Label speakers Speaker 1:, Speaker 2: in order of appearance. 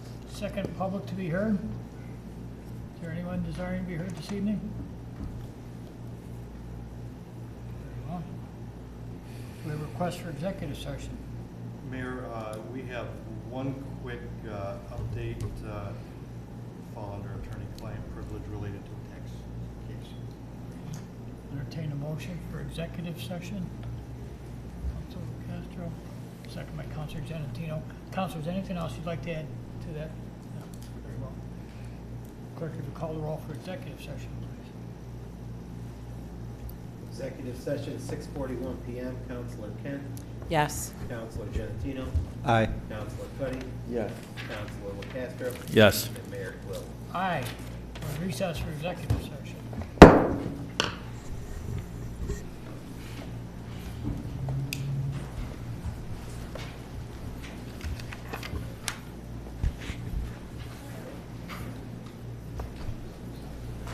Speaker 1: Second, public to be heard. Is there anyone desiring to be heard this evening? Very well. We request for executive session.
Speaker 2: Mayor, uh, we have one quick uh, update, uh, fall under attorney-client privilege related to the tax case.
Speaker 1: Entertain a motion for executive session. Council Castro, second by Councilor Genatino. Councilors, anything else you'd like to add to that? No. Very well. Clerk, if you call the roll for executive session, please.
Speaker 3: Executive session, six forty-one PM, Counselor Kent,
Speaker 4: Yes.
Speaker 3: Counselor Genatino,
Speaker 5: Aye.
Speaker 3: Counselor Cuddy,
Speaker 5: Yes.
Speaker 3: Counselor LaCastro,
Speaker 5: Yes.
Speaker 3: and Mayor Quill.
Speaker 1: Aye. We're in Recess for executive session.